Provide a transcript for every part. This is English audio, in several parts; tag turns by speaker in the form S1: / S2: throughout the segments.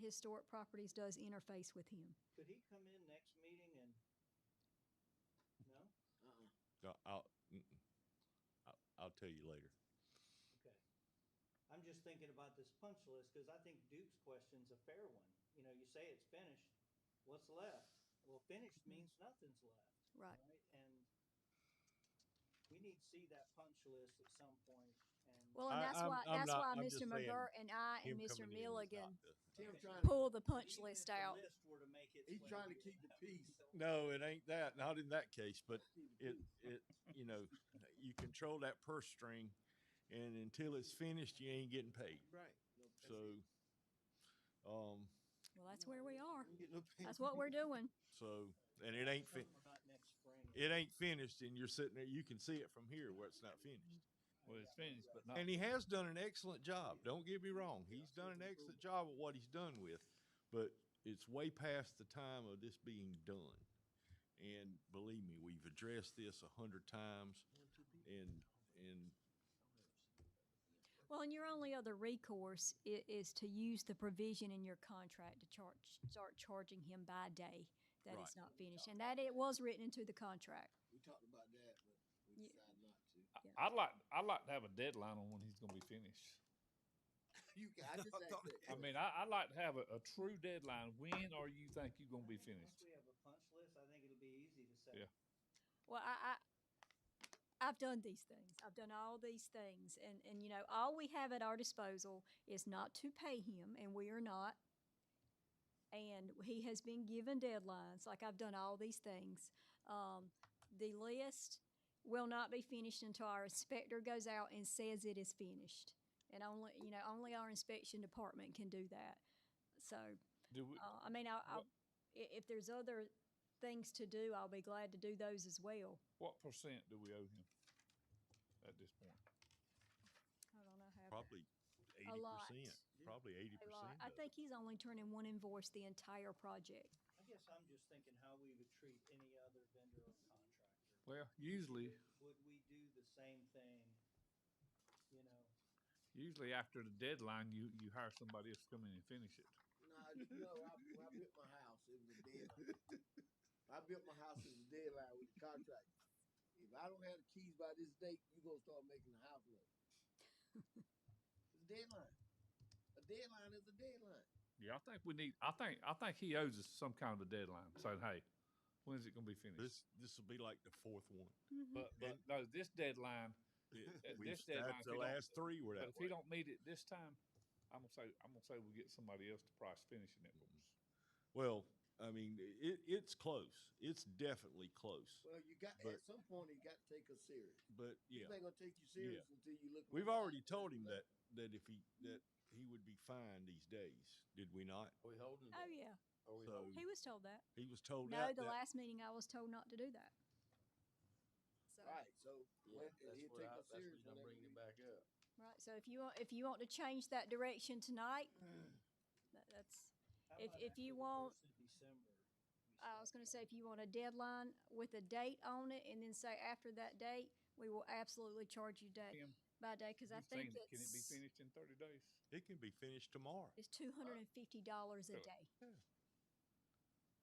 S1: Historic Properties does interface with him.
S2: Could he come in next meeting and, no?
S3: Uh-uh.
S4: No, I'll, mm-mm. I'll, I'll tell you later.
S2: Okay. I'm just thinking about this punch list, because I think Duke's question's a fair one. You know, you say it's finished, what's left? Well, finished means nothing's left.
S1: Mm-hmm. Right.
S2: And we need to see that punch list at some point, and.
S1: Well, and
S4: I-
S1: that's
S4: I'm-
S1: why
S4: I'm
S1: that's
S4: not-
S1: why
S4: I'm just
S1: Mr.
S4: saying
S1: McGurk and I and Mr.
S4: Him coming in is not
S1: Milligan
S4: the-
S3: Tim
S2: Okay.
S3: trying.
S1: pull the punch
S2: Even if
S1: list
S2: the
S1: out.
S2: list were to make its
S3: He's
S2: way
S3: trying to
S2: here,
S3: keep the peace.
S4: No, it ain't that. Not in that case, but it, it, you know, you control that purse string and until it's finished, you ain't getting paid.
S3: Right. No, that's
S4: So,
S3: it.
S4: um,
S1: Well, that's where we are.
S3: You get no pay.
S1: That's what we're doing.
S4: so, and it ain't, fi-
S2: Not next spring.
S4: it ain't finished and you're sitting there, you can see it from here where it's not finished.
S5: Well, it's finished, but not.
S4: And he has done an excellent job. Don't get me wrong. He's done an excellent job of what he's done with, but it's way past the time of this being done. And believe me, we've addressed this a hundred times and, and
S1: Well, and your only other recourse i- is to use the provision in your contract to charge, start charging him by day that it's
S4: Right.
S1: not finished, and that it was written into the contract.
S3: We talked about that, but we
S1: Yeah.
S3: decided not to.
S1: Yeah.
S5: I'd like, I'd like to have a deadline on when he's gonna be finished.
S3: You can, I just asked that.
S5: I mean, I, I'd like to have a, a true deadline. When are you think you're gonna be
S2: I think once
S5: finished?
S2: we have a punch list, I think it'll be easy to say.
S5: Yeah.
S1: Well, I, I, I've done these things. I've done all these things, and and you know, all we have at our disposal is not to pay him, and we are not. And he has been given deadlines. Like I've done all these things. Um, the list will not be finished until our inspector goes out and says it is finished. And only you know, only our inspection department can do that. So.
S5: Do we,
S1: Uh, I mean, I, I, i- if there's other things to do, I'll be glad to do those as well.
S5: what percent do we owe him at this point?
S1: I don't know how.
S4: probably
S1: A
S4: eighty
S1: lot.
S4: percent, probably eighty
S1: A lot.
S4: percent.
S1: I think he's only turning one invoice the entire project.
S2: I guess I'm just thinking how we would treat any other vendor or contractor.
S5: Well, usually,
S2: Would we do the same thing? You know,
S5: usually after the deadline, you, you hire somebody else to come in and finish it.
S3: Nah, you know, I, when I built my house, it was a deadline. I built my house as a deadline with the contract. If I don't have the keys by this date, you gonna start making the house look. It's a deadline. A deadline is a deadline.
S5: Yeah, I think we need, I think, I think he owes us some kind of a deadline, saying, hey, when's it gonna be finished?
S4: This, this will be like the fourth one.
S5: But, but, no, this deadline,
S4: It-
S5: At
S4: we-
S5: this
S4: That's
S5: deadline, if
S4: the
S5: you don't-
S4: last three were
S5: But
S4: that
S5: if he
S4: way.
S5: don't meet it this time, I'm gonna say, I'm gonna say we get somebody else to price finishing it.
S4: Well, I mean, it, it's close. It's definitely close,
S3: Well, you got,
S4: But-
S3: at some point, you gotta take us serious.
S4: but yeah.
S3: This ain't gonna take you serious until you look.
S4: We've already told him that, that if he, that he would be fined these days, did we not?
S6: Are we holding?
S1: Oh, yeah.
S4: So
S1: He was told that.
S4: he was told
S1: No,
S4: out
S1: the
S4: that,
S1: last meeting I was told not to do that. So,
S3: Right, so
S6: Yeah,
S3: when,
S6: that's
S3: he'll
S6: what
S3: take
S6: I,
S3: us
S6: that's
S3: serious.
S6: what I'm
S3: whenever
S6: bringing
S3: we-
S6: it back up.
S1: right. So if you want, if you want to change that direction tonight,
S5: Mm.
S1: that, that's,
S2: how
S1: If-
S2: about
S1: if
S2: after
S1: you
S2: the
S1: want-
S2: first of December? we
S1: I was
S2: start
S1: going to say, if you want a deadline with a date on it and then say after that date, we will absolutely charge you day
S5: Tim,
S1: by day, because I
S5: you saying,
S1: think
S5: Can it be
S1: it's,
S5: finished in thirty days?
S4: it can be finished tomorrow.
S1: it's two hundred and fifty dollars a
S5: Really?
S1: day.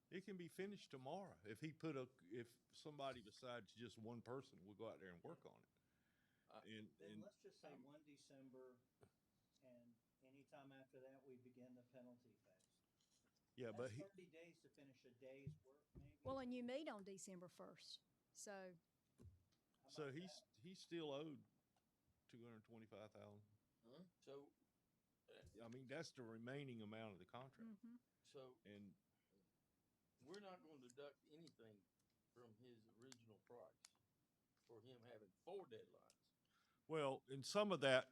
S4: It can be finished tomorrow. If he put a, if somebody besides just one person will go out there and work on
S6: Uh,
S4: it. And,
S2: Then
S4: and
S2: let's just say one December, and anytime after that, we begin the penalty phase.
S4: yeah, but
S2: That's
S4: he,
S2: thirty days to finish a day's work, maybe.
S1: Well, and you meet on December first, so,
S2: How about
S4: so he's,
S2: that?
S4: he's still owed two hundred and twenty-five thousand.
S6: So,
S4: I mean, that's the remaining amount of the contract.
S1: mm-hmm.
S6: so
S1: Hmm.
S4: And
S6: we're not going to deduct anything from his original price for him having four deadlines.
S4: Well, in some of that,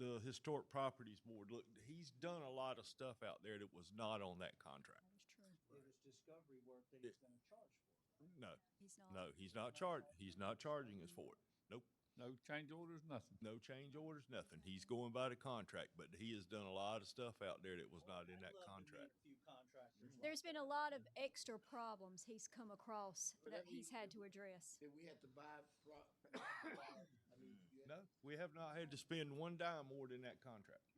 S4: the Historic Properties Board, look, he's done a lot of stuff out there that was not on that contract.
S1: that is true.
S2: It was discovery work that he's gonna charge for.
S4: No,
S1: He's not.
S4: no, he's not charged, he's not charging us for it. Nope,
S5: No change orders, nothing.
S4: no change orders, nothing. He's going by the contract, but he has done a lot of stuff out there that was not in
S2: I'd
S4: that
S2: love to meet
S4: contract.
S2: a Few contractors.
S1: There's been a lot of extra problems he's come across
S3: But
S1: that
S3: that
S1: he's
S3: means-
S1: had to address.
S3: If we have to buy, pro- I mean, you have-
S4: No, we have not had to spend one dime more than that contract.